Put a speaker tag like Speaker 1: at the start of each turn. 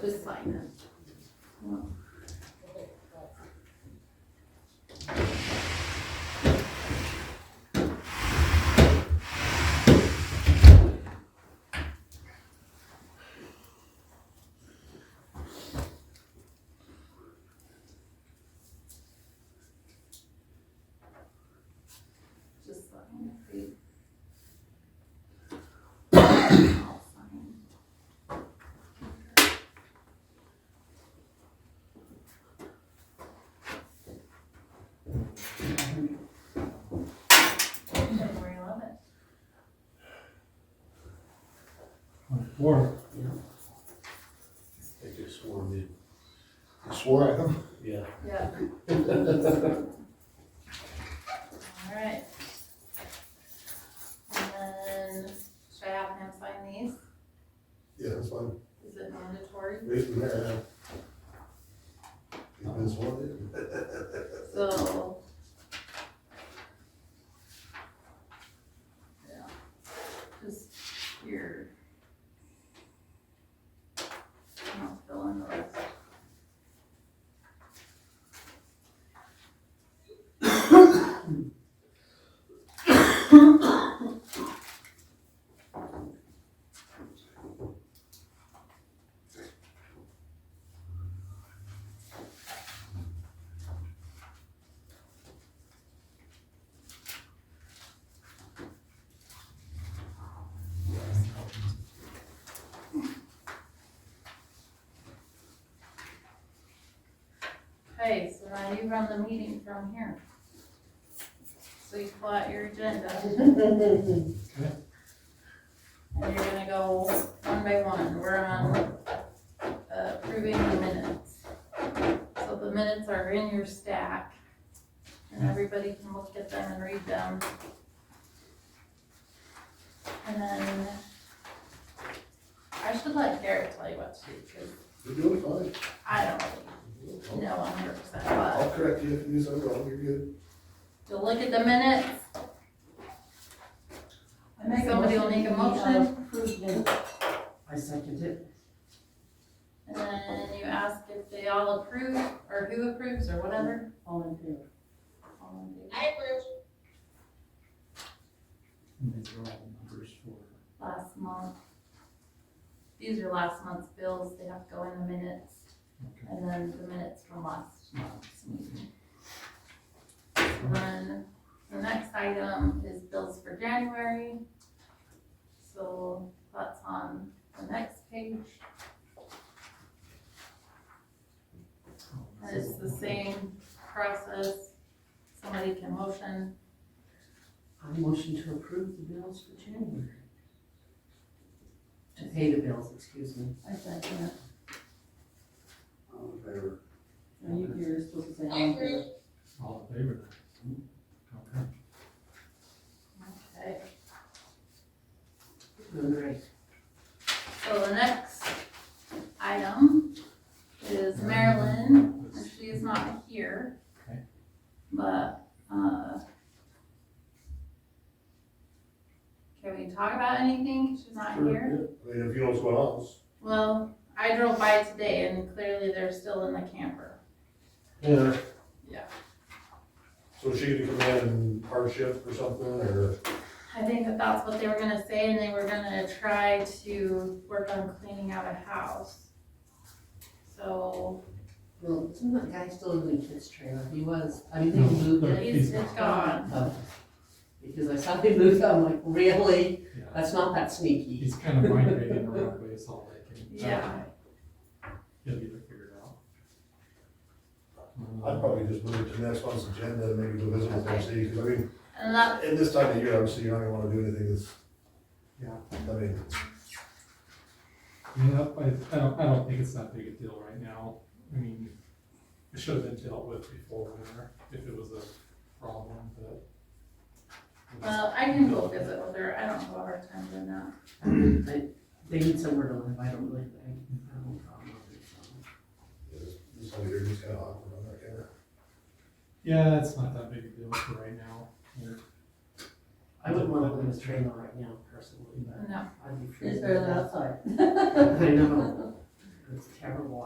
Speaker 1: Just sign it. Just sign it, please. I'll sign. February eleventh.
Speaker 2: Or,
Speaker 3: They just swore me. You swore at them? Yeah.
Speaker 1: Yeah. Alright. And then, should I have him sign these?
Speaker 3: Yeah, that's fine.
Speaker 1: Is it mandatory?
Speaker 3: They, uh, yeah. You just wanted it.
Speaker 1: So. Yeah, just here. And I'll fill in the rest. Okay, so now you run the meeting from here. So you pull out your agenda. And you're gonna go one by one, we're on uh, approving the minutes. So the minutes are in your stack, and everybody can look at them and read them. And then, I should let Garrett tell you what to do, because
Speaker 3: You're doing fine.
Speaker 1: I don't really no, one hundred percent, but
Speaker 3: I'll correct you if you do something wrong, you're good.
Speaker 1: to look at the minutes,
Speaker 4: I make a
Speaker 1: Somebody will make a motion.
Speaker 4: we, uh, approve the- I second it.
Speaker 1: and
Speaker 4: uh,
Speaker 1: then you ask if they all approve, or who approves, or whatever.
Speaker 4: All in favor?
Speaker 1: I
Speaker 2: and these are all numbers for,
Speaker 1: Last month. These are last month's bills, they have to go in the minutes,
Speaker 2: okay.
Speaker 1: and then the minutes from last month's meeting. And Then, the next item is bills for January. So that's on the next page.
Speaker 2: um,
Speaker 1: And It's the same process, somebody can motion,
Speaker 4: I motion to approve the bills for January. To pay the bills, excuse me.
Speaker 5: I second it.
Speaker 3: All in favor?
Speaker 5: Now you, you're supposed to say all in favor.
Speaker 2: All in favor? Okay.
Speaker 1: okay,
Speaker 4: All right.
Speaker 1: so the next item is Marilyn, and she is not here.
Speaker 2: Okay.
Speaker 1: But, uh, can we talk about anything, she's not
Speaker 3: Sure,
Speaker 1: here?
Speaker 3: yeah. I mean, if you know what's going on, it's-
Speaker 1: Well, I drove by today and clearly they're still in the camper.
Speaker 3: Yeah.
Speaker 1: Yeah.
Speaker 3: So she could come in and hardship or something, or,
Speaker 1: I think that that's what they were gonna say, and they were gonna try to work on cleaning out a house. So,
Speaker 5: Well, isn't that guy still living in his trailer? He was, I mean, they moved it.
Speaker 2: But
Speaker 1: it's,
Speaker 2: he's-
Speaker 1: it's gone.
Speaker 5: Oh. Because I saw they moved, it, I'm like, really?
Speaker 2: Yeah,
Speaker 5: That's not that sneaky.
Speaker 2: he's kind of migrating around, but it's all like. in-
Speaker 1: Yeah.
Speaker 2: He'll get it figured out. Um,
Speaker 3: I'd probably just move it to next month's agenda and maybe go visit with them, see, 'cause I mean,
Speaker 1: And that,
Speaker 3: at this time of year, obviously, you're not gonna wanna do anything that's.
Speaker 2: Yeah.
Speaker 3: I mean,
Speaker 2: I mean, that- I, I don't, I don't think it's that big a deal right now. I mean, it should have been dealt with before winter if it was a problem, but.
Speaker 1: well, I can go visit with her, I don't have a hard time doing that.
Speaker 5: I- They need somewhere to live, I don't really, I I have no problem with it, so.
Speaker 3: it's- this whole year just kinda awkward on that kind of.
Speaker 2: Yeah, it's not that big a deal for right now. We're-
Speaker 5: I wouldn't want to live in his trailer right now personally, but
Speaker 1: No,
Speaker 5: I'd be.
Speaker 4: It's
Speaker 5: freezing.
Speaker 4: better than outside.
Speaker 5: I know. I it's terrible